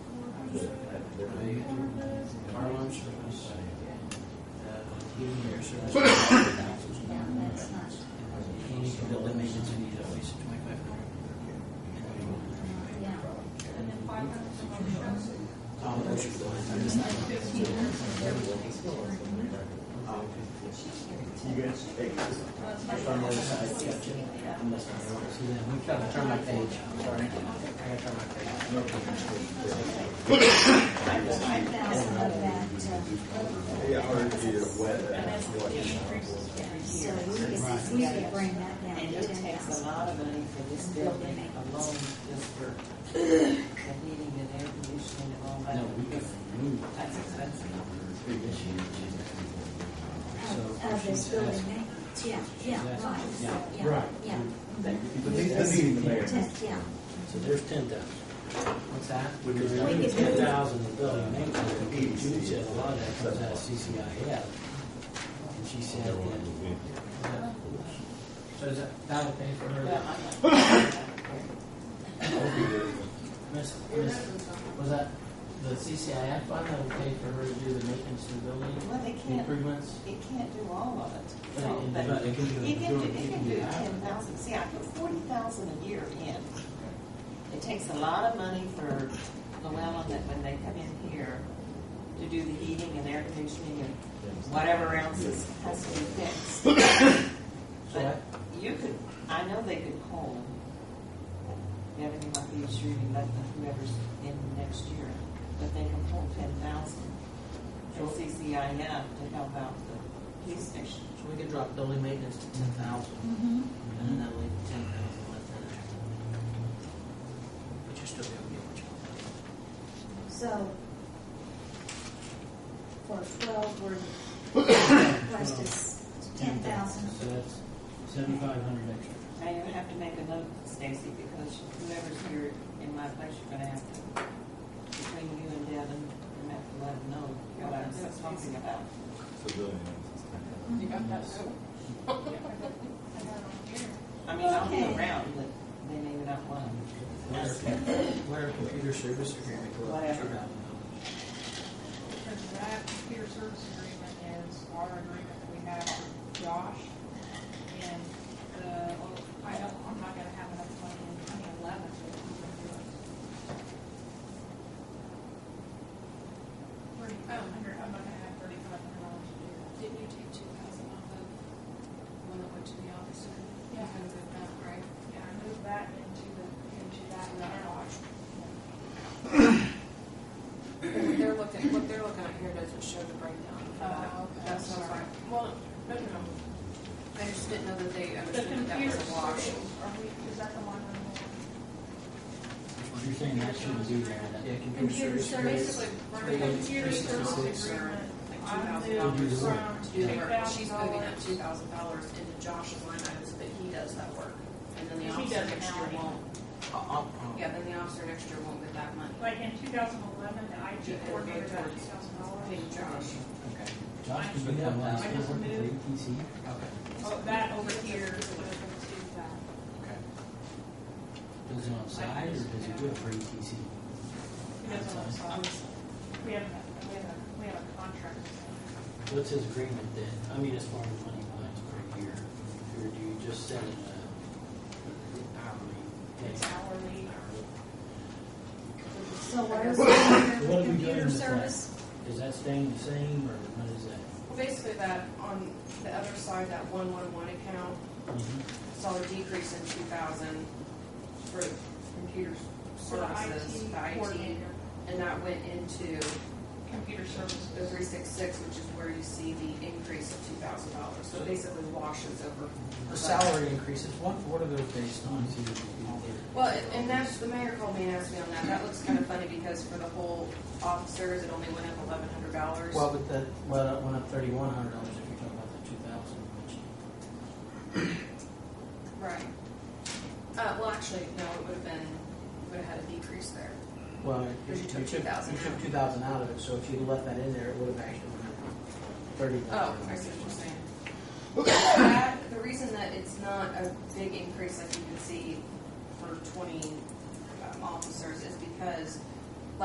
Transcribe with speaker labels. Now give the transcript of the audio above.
Speaker 1: Our lunch service, uh, human air service. You need to build a maintenance, you need at least twenty-five hundred. Oh, that's your plan. I just- Oh, okay. You guys take this. If I'm on the other side, catch it. Unless I want to see them. I'm trying to turn my page. Sorry. I gotta turn my page.
Speaker 2: Yeah, or do you wet that?
Speaker 3: So we could, we could bring that down.
Speaker 4: And
Speaker 3: to
Speaker 4: it
Speaker 3: ten
Speaker 4: takes a
Speaker 3: thousand.
Speaker 4: lot of money for this building alone, just for the heating and air conditioning and all that.
Speaker 1: No, we can remove
Speaker 4: That's expensive.
Speaker 3: Of, of Oh, this building maintenance, yeah, yeah, right.
Speaker 1: Yeah.
Speaker 3: yeah,
Speaker 2: Right.
Speaker 3: Yeah,
Speaker 2: But these, this the mayor.
Speaker 3: ten, yeah.
Speaker 1: So there's ten thousand. What's that?
Speaker 2: We could-
Speaker 1: Ten thousand in building maintenance, and Judy said a lot of that comes out of CCIF. And she said that. So is that, that'll pay for her, miss, miss, was that the CCIF fund that will pay for her to do the maintenance of the building
Speaker 4: Well, they can't,
Speaker 1: improvements?
Speaker 4: it can't do all of it.
Speaker 1: But it-
Speaker 4: But
Speaker 1: but it can do-
Speaker 4: You can do,
Speaker 1: it
Speaker 4: you
Speaker 1: can
Speaker 4: can do
Speaker 1: do
Speaker 4: ten thousand, see, I put forty thousand a year in. It takes a lot of money for Llewellyn, that when they come in here, to do the heating and air conditioning and whatever else is, has to be fixed.
Speaker 1: So
Speaker 4: But you could, I know they could call, Devin, you might be sure you let them, whoever's in next year, but they can pull ten thousand from CCIF to help out the police station.
Speaker 1: so we could drop building maintenance to ten thousand,
Speaker 3: Mm-hmm.
Speaker 1: and then that'll leave ten thousand left in there. But you're still gonna get what you want.
Speaker 3: So for twelve, we're, request is ten thousand.
Speaker 1: So that's seventy-five hundred extra.
Speaker 4: Now you have to make a note, Stacy, because whoever's here in my place, you're gonna have to, between you and Devin, you have to let them know what I'm talking about.
Speaker 5: You got that note?
Speaker 4: I mean, I'll be
Speaker 3: Okay.
Speaker 4: around, but they may not want to.
Speaker 1: What our computer service agreement go up to
Speaker 4: Whatever.
Speaker 1: $2,000?
Speaker 5: Because that computer service agreement is our agreement that we have with Josh. And, uh, well, I don't, I'm not gonna have enough money in twenty eleven to even do it. Thirty-five hundred, I'm not gonna have thirty-five hundred dollars to do that.
Speaker 6: Didn't you take two thousand off of when I went to the office and
Speaker 5: Yeah.
Speaker 6: because of that, right?
Speaker 5: Yeah, I moved that into the, into that analog.
Speaker 6: What they're looking, what they're looking at here doesn't show the breakdown. of that.
Speaker 5: Oh, okay.
Speaker 6: That's what I,
Speaker 5: Well, no, no, no.
Speaker 6: I just didn't know that they
Speaker 5: The
Speaker 6: understood that that
Speaker 5: computer
Speaker 6: was a wash.
Speaker 5: service, are we, is that the one?
Speaker 1: You're saying that shouldn't be there, that. Yeah,
Speaker 5: Computer
Speaker 6: Basically,
Speaker 5: The
Speaker 6: we're gonna
Speaker 5: computer service agreement, I moved
Speaker 1: $2,000.
Speaker 5: from
Speaker 6: do the
Speaker 5: eight
Speaker 6: work.
Speaker 5: thousand
Speaker 6: She's moving that
Speaker 5: dollars.
Speaker 6: two thousand dollars into Josh's line item so that he does that work. And then the
Speaker 5: Because he
Speaker 6: officer
Speaker 5: does it
Speaker 6: next
Speaker 5: now
Speaker 6: year
Speaker 5: anyway.
Speaker 6: won't,
Speaker 1: I'll, I'll,
Speaker 6: yeah, then the officer next year won't get that money.
Speaker 5: Like in two thousand eleven, the IT coordinator got two thousand
Speaker 6: Pay
Speaker 5: dollars.
Speaker 6: Josh.
Speaker 1: okay. Josh can become last
Speaker 5: I just
Speaker 1: resort for
Speaker 5: moved.
Speaker 1: ATC? Okay,
Speaker 5: Oh, that over here would have been to that.
Speaker 1: okay. Does it on side, or does it do it for ETC?
Speaker 5: He doesn't want to solve this. We have, a- we have, a- we have a contract.
Speaker 1: What's his agreement then? I mean, as far as money wise per year, or do you just set it a hourly
Speaker 5: It's
Speaker 1: pay?
Speaker 5: hourly.
Speaker 3: So what is the
Speaker 1: What are we doing
Speaker 3: computer
Speaker 1: with that?
Speaker 3: service?
Speaker 1: Is that staying the same, or what is that?
Speaker 6: Well, basically that, on the other side, that one-one-one account,
Speaker 1: Mm-hmm.
Speaker 6: saw a decrease in two thousand for computer
Speaker 5: For the
Speaker 6: services, the
Speaker 5: IT
Speaker 6: IT,
Speaker 5: coordinator,
Speaker 6: and that went into
Speaker 5: computer service.
Speaker 6: the three six six, which is where you see the increase of two thousand dollars, so it basically washes over.
Speaker 1: The salary increases, what, what are those based on?
Speaker 6: Well, and- and that's, the mayor called me and asked me on that, that looks kind of funny because for the whole officers, it only went up eleven hundred dollars.
Speaker 1: Well, but that, well, it went up thirty-one hundred dollars if you're talking about the two thousand, which,
Speaker 6: Right. Uh, well, actually, no, it would have been, would have had a decrease there.
Speaker 1: well.
Speaker 6: Because you took 2,000
Speaker 1: You took
Speaker 6: out.
Speaker 1: two thousand out of it, so if you left that in there, it would have actually been thirty
Speaker 6: Oh,
Speaker 1: thousand.
Speaker 6: I see what you're saying. That, the reason that it's not a big increase like you can see for twenty um, officers is because